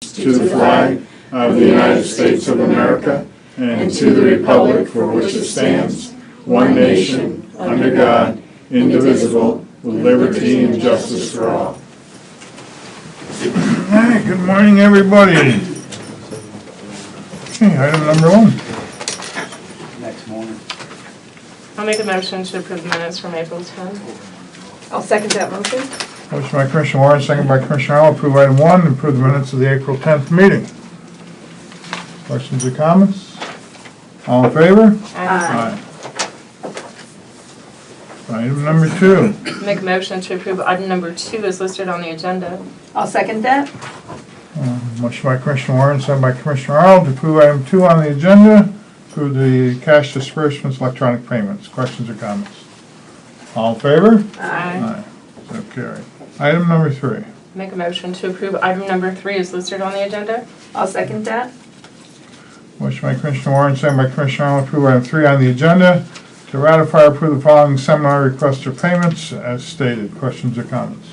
to the flag of the United States of America and to the republic for which it stands, one nation, under God, indivisible, with liberty and justice for all. Hey, good morning, everybody. Okay, item number one. next morning. I'll make a motion to approve the minutes from April 10th. I'll second that motion. Motion by Commissioner Warren, second by Commissioner Arnold, approve item one, approve the minutes of the April 10th meeting. Questions or comments? All in favor? Aye. Item number two. Make a motion to approve item number two is listed on the agenda. I'll second that. Um, Motion by Commissioner Warren, second by Commissioner Arnold, to approve item two on the agenda, approve the cash disbursements, electronic payments. Questions or comments? All in favor? Aye. Aye. So carried. Item number three. Make a motion to approve item number three is listed on the agenda. I'll second that. Motion by Commissioner Warren, second by Commissioner Arnold, approve item three on the agenda, to ratify or approve the following seminar requests or payments as stated. Questions or comments?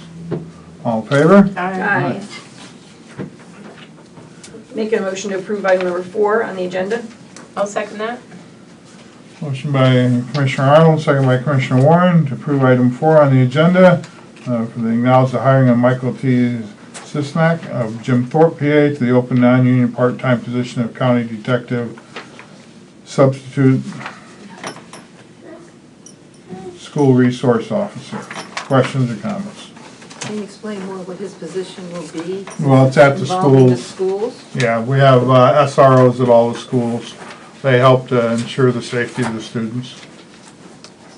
All in favor? Aye. Make a motion to approve item number four on the agenda. I'll second that. Motion by Commissioner Arnold, second by Commissioner Warren, to approve item four on the agenda, uh, for the acknowledge the hiring of Michael T. Sisnak of Jim Thorpe, PA, to the open non-union part-time position of county detective substitute school resource officer. Questions or comments? Can you explain more what his position will be? Well, it's at the Involving the schools. schools? Yeah, we have uh, SROs at all the schools. They help to ensure the safety of the students.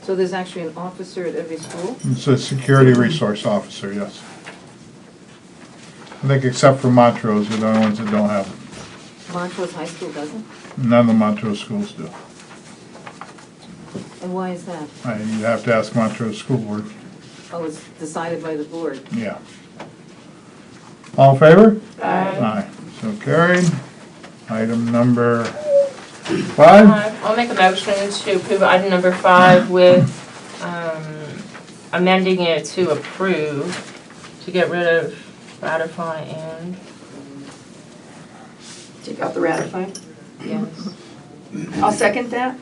So there's actually an officer at every school? It's a security resource officer, yes. I think except for Montrose, they're the only ones that don't have it. Montrose High School doesn't? None of the Montrose schools do. And why is that? Uh, You'd have to ask Montrose School Board, Oh, it's decided by the board. yeah. All in favor? Aye. Aye. So carried. Item number five. Uh, I'll make a motion to approve item number five with um, amending it to approve, to get rid of ratify and, Take out the ratify. yes, I'll second that.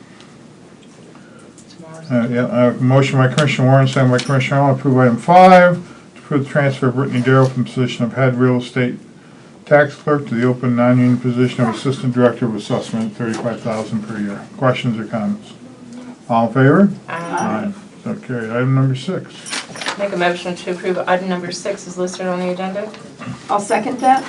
tomorrow's. Uh, yeah, uh, Motion by Commissioner Warren, second by Commissioner Arnold, approve item five, to approve the transfer of Brittany Darrow from the position of head real estate tax clerk to the open non-union position of assistant director of assessment, thirty-five thousand per year. Questions or comments? All in favor? Aye. So carried. Item number six. Make a motion to approve item number six is listed on the agenda. I'll second that.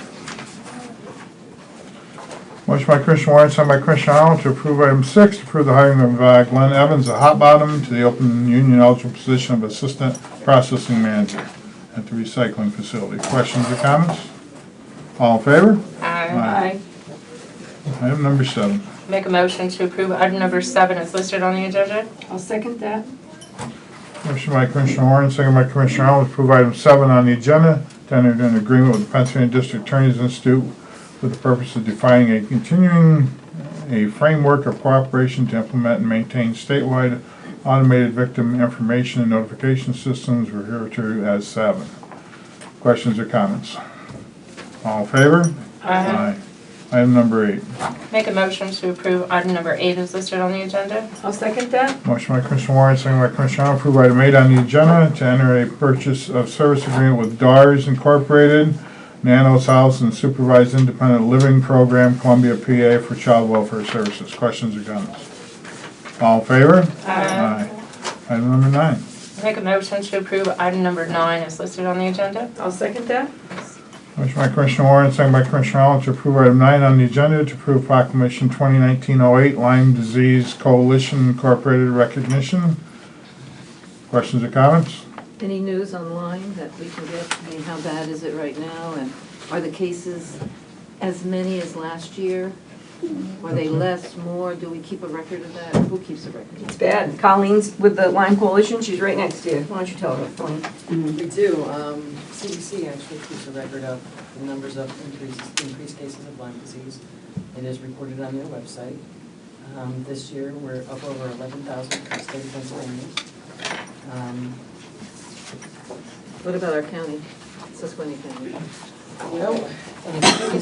Motion by Commissioner Warren, second by Commissioner Arnold, to approve item six, to approve the hiring of uh, Glenn Evans, a hot bottom, to the open union eligible position of assistant processing manager at the recycling facility. Questions or comments? All in favor? Aye. Aye. Item number seven. Make a motion to approve item number seven is listed on the agenda. I'll second that. Motion by Commissioner Warren, second by Commissioner Arnold, to approve item seven on the agenda, to enter into an agreement with the Pennsylvania District Attorney's Institute for the purpose of defining a continuing, a framework of cooperation to implement and maintain statewide automated victim information and notification systems, referred to as SAVIN. Questions or comments? All in favor? Aye. Item number eight. Make a motion to approve item number eight is listed on the agenda. I'll second that. Motion by Commissioner Warren, second by Commissioner Arnold, approve item eight on the agenda to enter a purchase of service agreement with DARS Incorporated, Nano's House and Supervised Independent Living Program, Columbia, PA, for child welfare services. Questions or comments? All in favor? Aye. Item number nine. Make a motion to approve item number nine is listed on the agenda. I'll second that. Motion by Commissioner Warren, second by Commissioner Arnold, to approve item nine on the agenda to approve proclamation 2019-08 Lyme Disease Coalition Incorporated recognition. Questions or comments? Any news online that we can get? I mean, how bad is it right now? And are the cases as many as last year? Are they less, more? Do we keep a record of that? Who keeps a record? It's bad. Colleen's with the Lyme Coalition. She's right next to you. Why don't you tell her, Colleen? We do. Um, CDC actually keeps a record of the numbers of increases, increased cases of Lyme disease. It is recorded on their website. Um, This year, we're up over 11,000 in the state of Pennsylvania. Um, What about our county, Susquehanna County? Well, um,